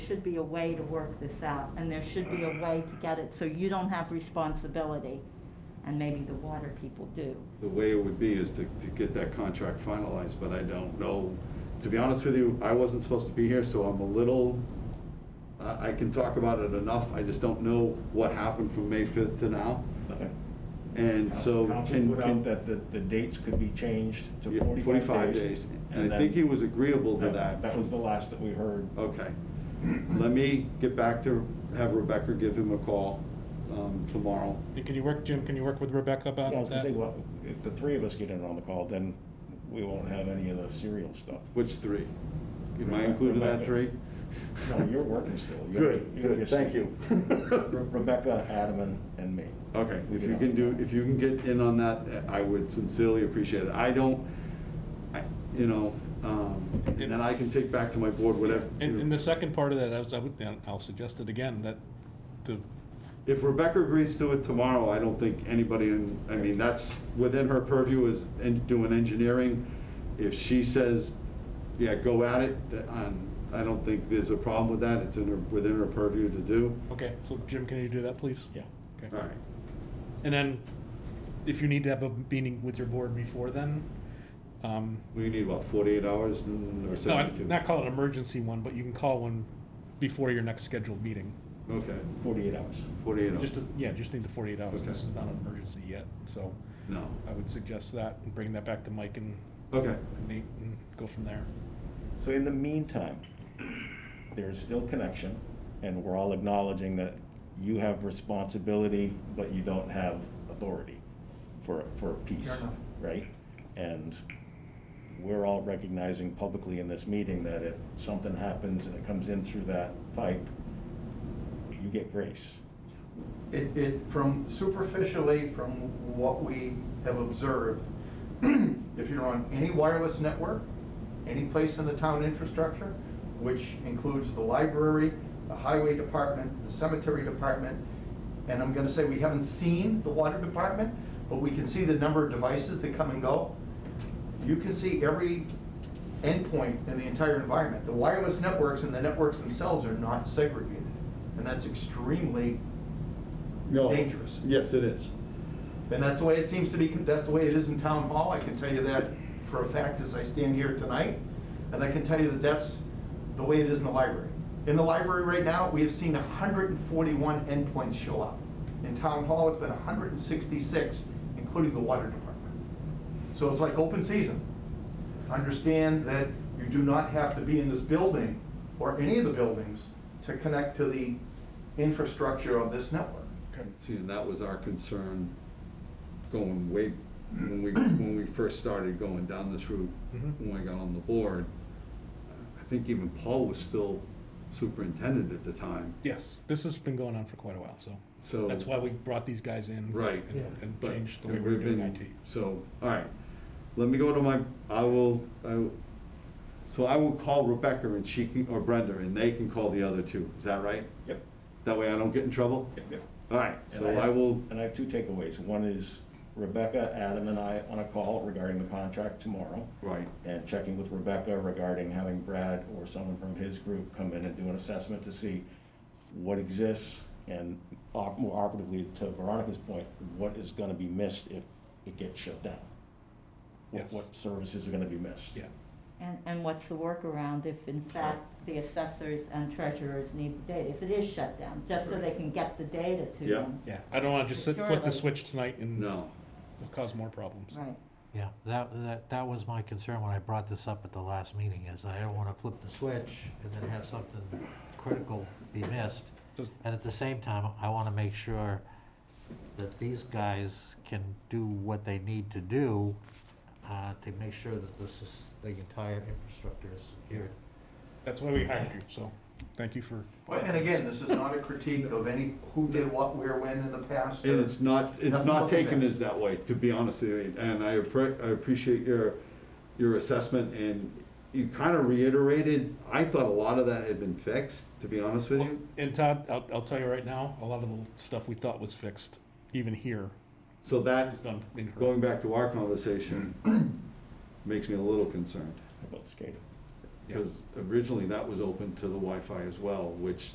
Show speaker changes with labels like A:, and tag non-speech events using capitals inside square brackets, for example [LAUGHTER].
A: should be a way to work this out, and there should be a way to get it so you don't have responsibility, and maybe the water people do.
B: The way it would be is to, to get that contract finalized, but I don't know. To be honest with you, I wasn't supposed to be here, so I'm a little, I, I can talk about it enough. I just don't know what happened from May fifth to now. And so
C: Council
B: can,
C: put out
B: can.
C: that the, the dates could be changed to
B: yeah,
C: forty-five days.
B: And I
C: then
B: think he was agreeable to that.
C: That was the last that we heard.
B: Okay. Let me get back to, have Rebecca give him a call, um, tomorrow.
D: Can you work, Jim, can you work with Rebecca
C: Yeah,
D: about
C: I was gonna say,
D: that?
C: well, if the three of us get in on the call, then we won't have any of the serial stuff.
B: Which three? Am I included in that three?
C: No, you're working still.
B: [LAUGHS]
C: You're-
B: Good,
C: you're
B: good,
C: just-
B: thank
C: [LAUGHS]
B: you.
C: Re- Rebecca, Adam, and, and me.
B: Okay,
C: We
B: if
C: get
B: you
C: on
B: can
C: the
B: do,
C: call.
B: if you can get in on that, I would sincerely appreciate it. I don't, I, you know, um, and then I can take back to my board whatever.
D: And, and the second part of that, I was, I would, and I'll suggest it again, that the,
B: If Rebecca agrees to it tomorrow, I don't think anybody in, I mean, that's within her purview is en- doing engineering. If she says, yeah, go at it, th- um, I don't think there's a problem with that. It's in her, within her purview to do.
D: okay, so Jim, can you do that, please?
C: Yeah.
D: Okay.
B: All right,
D: And then, if you need to have a meeting with your board before then, um,
B: we need about forty-eight hours mm, or
D: no, I-
B: seventy-two?
D: not call it an emergency one, but you can call one before your next scheduled meeting.
B: Okay,
C: Forty-eight hours.
B: forty-eight hours,
D: Just, a- yeah, just need the forty-eight hours,
B: Okay.
D: this is not an emergency yet, so
B: no,
D: I would suggest that, and bring that back to Mike and
B: okay.
D: Nate, and go from there.
C: So in the meantime, there is still connection, and we're all acknowledging that you have responsibility, but you don't have authority for, for a piece,
E: Fair enough.
C: right? And we're all recognizing publicly in this meeting that if something happens and it comes in through that pipe, you get grace.
E: It, it, from superficially, from what we have observed, [CLEARS THROAT] if you're on any wireless network, any place in the town infrastructure, which includes the library, the highway department, the cemetery department, and I'm gonna say we haven't seen the water department, but we can see the number of devices that come and go. You can see every endpoint in the entire environment. The wireless networks and the networks themselves are not segregated, and that's extremely
B: No.
E: Dangerous.
B: Yes, it is.
E: And that's the way it seems to be, that's the way it is in town hall, I can tell you that for a fact as I stand here tonight. And I can tell you that that's the way it is in the library. In the library right now, we have seen hundred and forty-one endpoints show up. In town hall, it's been hundred and sixty-six, including the water department. So it's like open season. Understand that you do not have to be in this building or any of the buildings to connect to the infrastructure of this network.
B: See, and that was our concern going way, when we, when we first started going down this route,
D: Mhm.
B: when I got on the board. I think even Paul was still superintendent at the time,
D: Yes, this has been going on for quite a while, so
B: so.
D: that's why we brought these guys in.
B: Right.
D: and- And
B: but-
D: changed the way
B: and
D: we were
B: we've
D: doing
B: been-
D: IT.
B: So, all right, let me go to my, I will, I, will- so I will call Rebecca and she can, or Brenda, and they can call the other two, is that right?
C: Yep,
B: That way I don't get in trouble?
C: yep, yep.
B: All right,
C: And
B: so I will,
C: And I have two takeaways. One is Rebecca, Adam, and I on a call regarding the contract tomorrow.
B: right,
C: and checking with Rebecca regarding having Brad or someone from his group come in and do an assessment to see what exists and op- more operatively to Veronica's point, what is gonna be missed if it gets shut down? What,
D: Yes.
C: what services are gonna be missed?
D: Yeah,
A: And, and what's the workaround if in fact the assessors and treasurers need the data, if it is shut down, just so they can get the data to
B: Yeah.
A: them?
D: yeah, I don't wanna just sit- flip the
A: Securely.
D: switch tonight and
B: no,
D: cause more problems.
A: Right,
F: Yeah, that, that, that was my concern when I brought this up at the last meeting, is I don't wanna flip the switch and then have something critical be missed.
D: Does-
F: And at the same time, I wanna make sure that these guys can do what they need to do, uh, to make sure that this is, the entire infrastructure is secured.
D: That's why we hired you, so thank you for.
E: Well, And again, this is not a critique of any who did what, where, when in the past.
B: And
E: or-
B: it's not, it's
E: Nothing
B: not
E: wrong with
B: taken
E: that.
B: as that way, to be honest with you, and I appre- I appreciate your, your assessment, and you kind of reiterated, I thought a lot of that had been fixed, to be honest with you.
D: And Todd, I'll, I'll tell you right now, a lot of the stuff we thought was fixed, even here,
B: So that,
D: is done incorrectly.
B: going back to our conversation, makes me a little concerned.
C: How About skating.
B: because originally that was open to the Wi-Fi as well, which